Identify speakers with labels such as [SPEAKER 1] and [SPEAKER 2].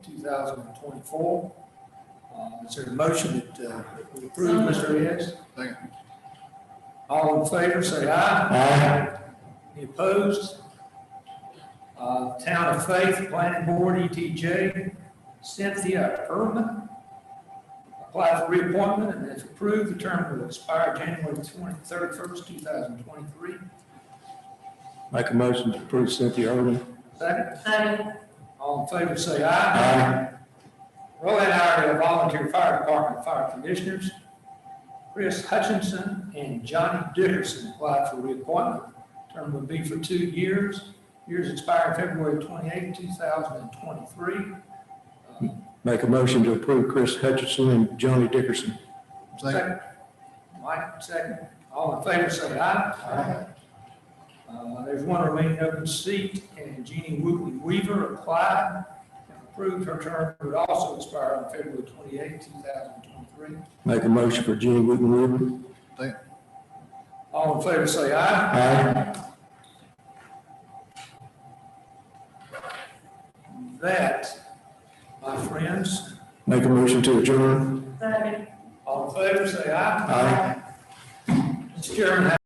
[SPEAKER 1] 2024. Uh, Is there a motion that uh, that we approve, Mr. Reyes? Second. All in favor, say aye. Aye. Any opposed? Uh, Town of Faith Planning Board, ETJ, Cynthia Irvin. Apply for reappointment and is approved. The term will expire January 23rd, 1st, 2023.
[SPEAKER 2] Make a motion to approve Cynthia Irwin.
[SPEAKER 1] Second.
[SPEAKER 3] Second.
[SPEAKER 1] All in favor, say aye. Roy and I are the volunteer fire department fire commissioners. Chris Hutchinson and Johnny Dickerson applied for reappointment. Term will be for two years. Years expire February 28, 2023. Uh,
[SPEAKER 2] Make a motion to approve Chris Hutchinson and Johnny Dickerson.
[SPEAKER 1] Second. Mike, second. All in favor, say aye. Uh, There's one remaining open seat, and Jeannie Wootley Weaver applied and approved. Her term would also expire on February 28, 2023.
[SPEAKER 2] Make a motion for Jenny Wooten Weaver.
[SPEAKER 1] All in favor, say aye.
[SPEAKER 2] Aye.
[SPEAKER 1] That, my friends,
[SPEAKER 2] Make a motion to adjourn.
[SPEAKER 3] Second.
[SPEAKER 1] all in favor, say aye.
[SPEAKER 2] Aye.
[SPEAKER 1] Mr. Chairman,